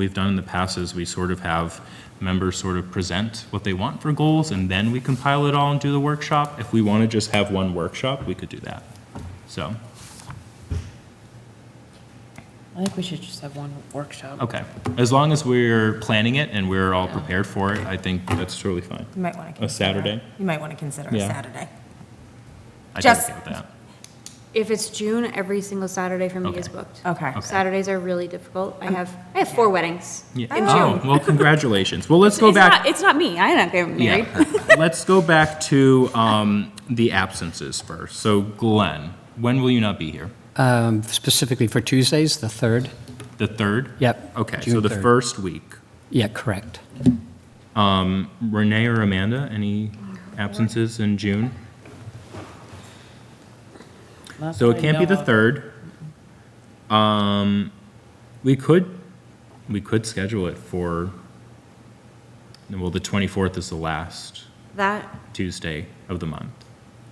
we've done in the past is we sort of have members sort of present what they want for goals, and then we compile it all and do the workshop. If we want to just have one workshop, we could do that. So, I think we should just have one workshop. okay, as long as we're planning it and we're all prepared for it, I think that's totally fine. You might want to. A Saturday? You might want to consider a Yeah. Saturday. I'd be Just- okay with that. If it's June, every single Saturday for me is Okay. booked. Okay. Okay. Saturdays are really difficult. I have, I have four weddings. Yeah. In Oh, June. well, congratulations. Well, let's go It's back. not- It's not me. I'm not getting married. Yeah. Let's go back to um, the absences first. So Glenn, when will you not be here? Um, Specifically for Tuesdays, the 3rd? The 3rd? Yep. Okay, so June the 3rd. first week. Yeah, correct. Renee or Amanda, any absences in June? That's So what it I can't be know the of. 3rd. Um, We could, we could schedule it for, well, the 24th is the last That, Tuesday of the month.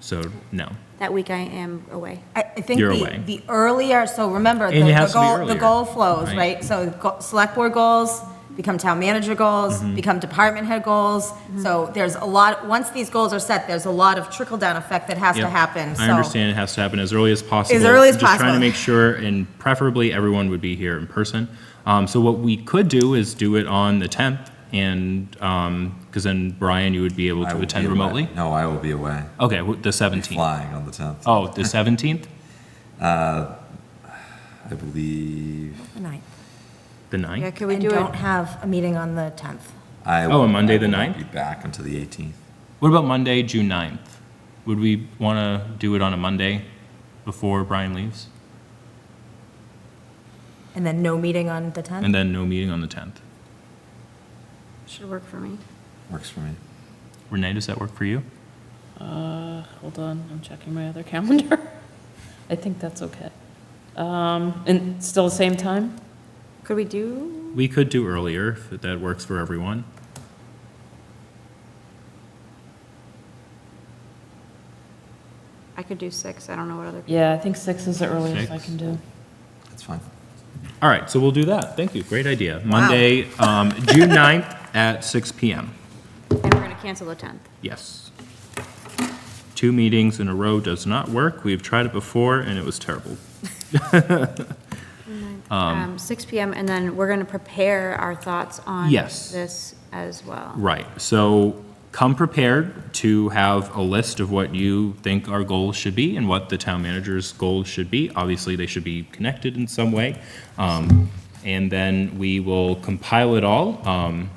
So, no. that week I am away. I, I think You're the, away. the earlier, so remember, the And it the has to be goal, the earlier, goal flows, right? right? So go- select board goals, become town manager goals, Mm-hmm. become department head goals. So there's a lot, once these goals are set, there's a lot of trickle-down effect that has to Yep. happen, so. I understand it has to happen as early as possible. early as Just trying to possible. make sure, and preferably everyone would be here in person. Um, so what we could do is do it on the tenth, and, um 'cause because then Brian, you would be able I to will attend be away. remotely? No, I will be away, Okay, wh- the seventeenth. flying on the 10th. Oh, the seventeenth, I believe The ninth. the Yeah, ninth? could we And do don't it? have a meeting on the 10th. I. Oh, on Monday the I will not 9th? Be back until the 18th. What about Monday, June ninth? Would we want to do it on a Monday before Brian leaves? And then no meeting on the 10th? And then no meeting on the tenth? Should work for me. Works for me. Renee, does that work for you? Uh, hold on, I'm checking my other calendar. I think that's okay. Um, and still the same time? Could we do, We could do earlier, if that works for everyone. I could do six. I don't know what other. Yeah, I think six is the earliest I Six. can do. That's fine. All right, so we'll do that. Thank you. Great idea. Monday, um, June 9th at six PM. And we're going to cancel the 10th. Yes. Two meetings in a row does not work. We've tried it before and it was terrible. Um, six PM, and then we're going to prepare our thoughts on Yes. this as well. Right, so come prepared to have a list of what you think our goals should be and what the town manager's goals should be. Obviously, they should be connected in some way. Um, And then we will compile it all. Um,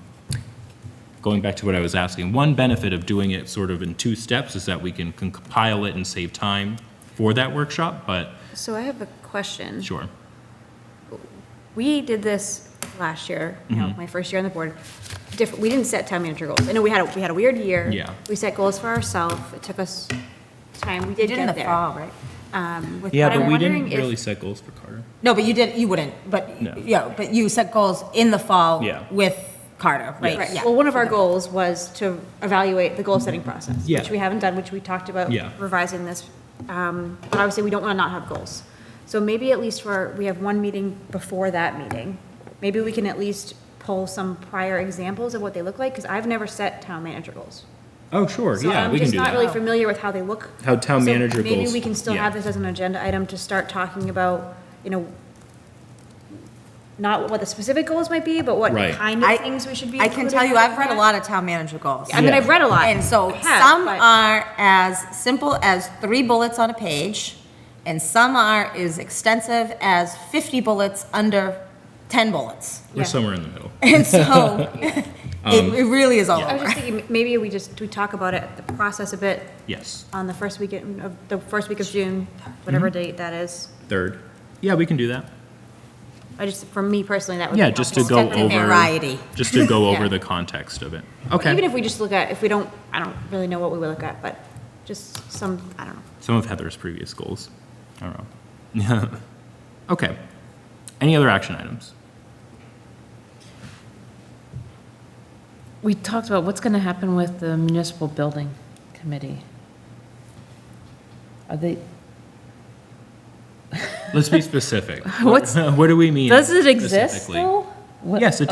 Going back to what I was asking, one benefit of doing it sort of in two steps is that we can compile it and save time for that workshop, but So I have a question. sure. We did this last year, you Mm-hmm. know, my first year on the board. Different, we didn't set town manager goals. I know we had, a we had a weird year. Yeah. We set goals for ourselves. It took us time. We did You did in get the there. fall, right? Um, Yeah, but but I'm we didn't wondering if- really set goals for Carter. No, but you did, you wouldn't, but, No. yeah, but you set goals in the fall Yeah. with Carter, right? Right, Yeah. well, one of our goals was to evaluate the goal-setting process, Yeah. which we haven't done, which we talked about Yeah. revising this. Um, But obviously, we don't want to not have goals. So maybe at least for, we have one meeting before that meeting. Maybe we can at least pull some prior examples of what they look like, because I've never set town manager goals. Oh, sure, So yeah, I'm we can just do not really that. familiar with how they look. How town So manager Maybe goals- we can still yeah. have this as an agenda item to start talking about, you know, not what the specific goals might be, but what Right. kind of I- things we should be I can tell you, I've read a lot of town manager goals. I mean, Yeah. I've read a lot. And so I have, some um, but- are as simple as three bullets on a page, and some are as extensive as 50 bullets under 10 bullets. We're Yeah. somewhere in the middle. And so it it really is all I was over. just thinking, maybe we just, we talk about it, the process a bit Yes. on the first weekend of, the first week of June, whatever Mm-hmm. date that is. Third. Yeah, we can do that. I just, for me personally, that would be Yeah, just to helpful. go Definitely over. variety. Just to go Yeah. over the context of it. Even Okay. if we just look at, if we don't, I don't really know what we would look at, but just some, I don't know. Some of Heather's previous goals. I don't know. Okay. Any other action items? We talked about what's going to happen with the municipal building committee. Are they, Let's be specific. What's- What do we mean? does it exist specifically? though? What- Yes, it